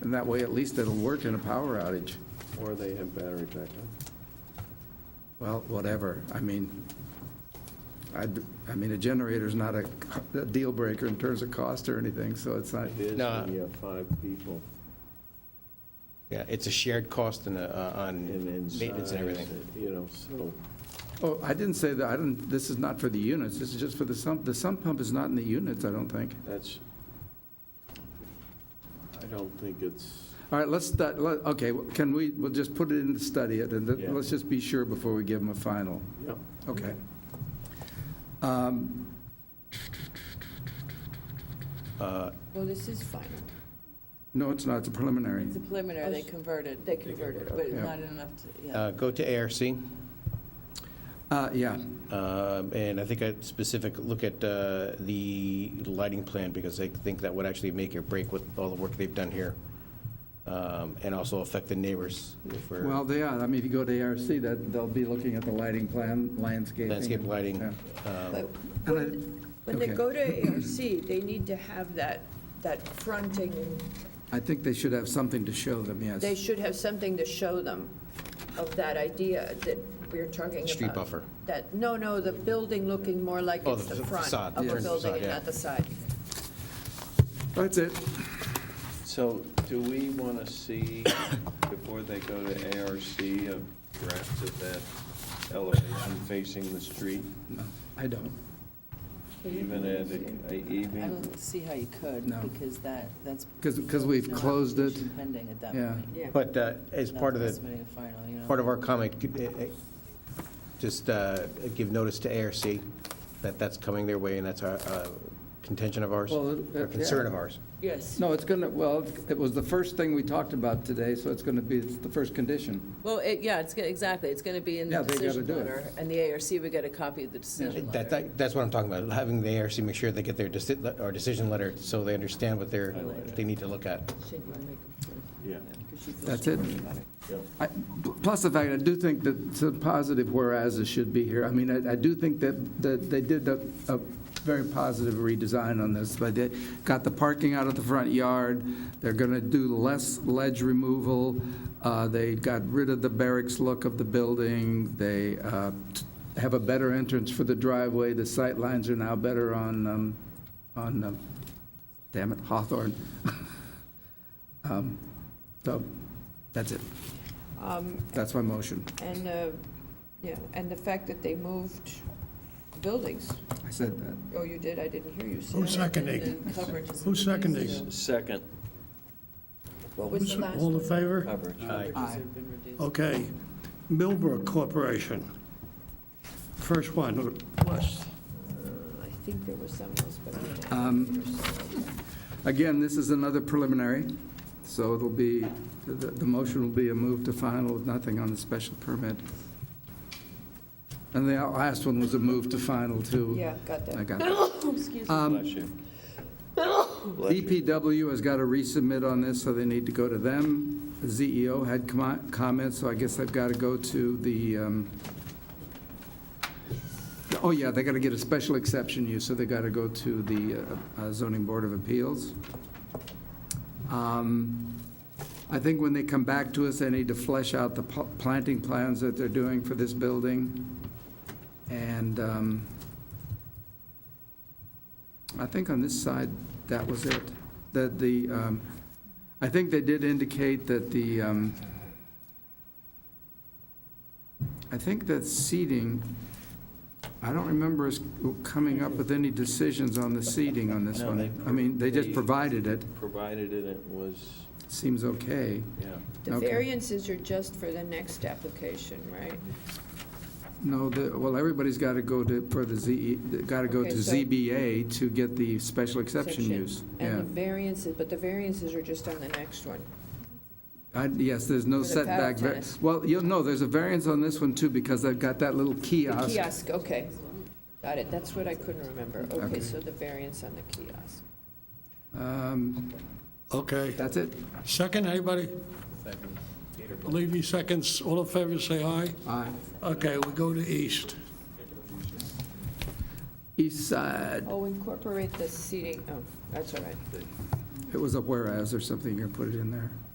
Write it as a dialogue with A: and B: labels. A: And that way, at least it'll work in a power outage.
B: Or they have battery backup.
A: Well, whatever, I mean, I, I mean, a generator's not a co- a deal breaker in terms of cost or anything, so it's not,
B: It is
C: No.
B: when you have five people
C: Yeah, it's a shared cost and, uh, on
B: and inside.
C: maintenance and everything.
B: You know, so,
A: oh, I didn't say that, I didn't, this is not for the units, this is just for the sump, the sump pump is not in the units, I don't think.
B: that's, I don't think it's,
A: All right, let's, stu- let- okay, can we, we'll just put it in, study it, and
B: Yeah.
A: then let's just be sure before we give them a final.
B: yeah.
A: Okay. Um,
C: Uh,
D: Well, this is final. Oh,
A: No, it's not, it's a preliminary.
E: It's a preliminary, they converted.
D: They converted,
E: But it's
A: Yeah.
E: not enough to, yeah.
C: uh, Go to ARC,
A: Uh, Yeah,
C: um, and I think a specific look at uh, the lighting plan, because I think that would actually make or break with all the work they've done here, um, and also affect the neighbors for
A: well, they are, I mean, if you go to ARC, that, they'll be looking at the lighting plan, landscaping.
C: landscape lighting.
A: Yeah.
C: um,
D: But
A: And
D: when when they
A: okay.
D: go to ARC, they need to have that, that fronting,
A: I think they should have something to show them, yes.
D: they should have something to show them of that idea that we're talking about.
C: Street buffer.
D: That, no, no, the building looking more like
C: Oh,
D: it's
C: the
D: the
C: fa-
D: front
C: facade,
D: of
A: yeah.
D: a building
C: Facade,
D: and
C: yeah.
D: not the side.
A: That's it.
B: So do we want to see, before they go to ARC, a draft of that elevation facing the street?
A: No, I don't.
B: Even at, a-
E: I
B: even,
E: don't see how you could,
A: No.
E: because that, that's.
A: 'Cause- 'cause we've
E: no
A: closed it.
E: application Pending at that
A: Yeah.
E: point.
D: Yeah.
C: But uh, as part of
E: That's
C: the,
E: estimating the final, you know.
C: part of our comment, eh, eh, just uh, give notice to ARC that that's coming their way, and that's our uh, contention of ours,
A: Well,
C: or
A: it- yeah.
C: concern of ours.
E: Yes.
A: No, it's going to, well, it was the first thing we talked about today, so it's going to be it's the first condition.
E: Well, it, yeah, it's, gonna- exactly, it's going to be in
A: Yeah,
E: the
A: they gotta
E: decision
A: do it.
E: letter, and the ARC would get a copy of the decision
C: That,
E: letter.
C: that, that's what I'm talking about, having the ARC make sure they get their deci- or decision letter, so they understand what they're, they need to look at.
D: Should you make them front?
B: yeah.
A: That's it. I- Plus the fact, I do think that some positive whereases should be here. I mean, I I do think that, that they did a a very positive redesign on this, but they got the parking out of the front yard, they're going to do less ledge removal, uh, they got rid of the barracks look of the building, they uh, t- have a better entrance for the driveway, the sight lines are now better on, um, on, um, damn it, Hawthorne. Um, So, that's it.
D: Um,
A: That's my motion.
D: And, uh, yeah, and the fact that they moved buildings.
A: I said that.
D: Oh, you did? I didn't hear you say
F: Who
D: that.
F: seconded?
E: And then coverage is-
F: Who seconded?
B: Second.
D: What was the last
F: All in
D: one?
F: favor?
E: Coverage,
C: Aye.
E: coverages have been reduced.
F: Okay. Millbrook Corporation. First one, West.
D: I think there was some else, but I don't
A: Um, Again, this is another preliminary, so it'll be, the, the motion will be a move to final with nothing on the special permit. And the last one was a move to final, too.
D: Yeah, got
A: I
D: that. Oh,
A: got that.
D: Excuse me.
A: Um,
B: Bless you.
A: DPW E has got to resubmit on this, so they need to go to them. ZEO had com- comments, so I guess I've got to go to the, um, oh yeah, they got to get a special exception use, so they got to go to the uh, uh, zoning board of appeals. Um, I think when they come back to us, they need to flesh out the pl- planting plans that they're doing for this building. And um, I think on this side, that was it. That the, um, I think they did indicate that the, um, I think that seating, I don't remember us coming up with any decisions on the seating on this
B: No,
A: one.
B: they-
A: I mean, they just
B: they-
A: provided it,
B: Provided it it was,
A: seems okay.
B: yeah.
D: The
A: okay.
D: variances are just for the next application, right?
A: No, the, well, everybody's got to go to, for the ZE, got to go
D: Okay,
A: to
D: so-
A: ZBA to get the special exception
D: Exception.
A: use.
D: And
A: Yeah.
D: the variances, but the variances are just on the next one.
A: I- Yes, there's no
D: For the paddle
A: setback. var-
D: tennis.
A: Well, you'll know, there's a variance on this one too, because they've got that little
D: The
A: kiosk.
D: kiosk, okay. Got it, that's what I couldn't remember.
A: Okay.
D: Okay, so the variance on the kiosk.
A: Um,
F: Okay.
A: That's it.
F: Second, anybody? Levy seconds. All in favor, say aye.
A: Aye.
F: Okay, we go to East.
A: East side,
D: Oh, incorporate the seating, oh, that's all right.
A: it was a whereas or something, you're gonna put it in there.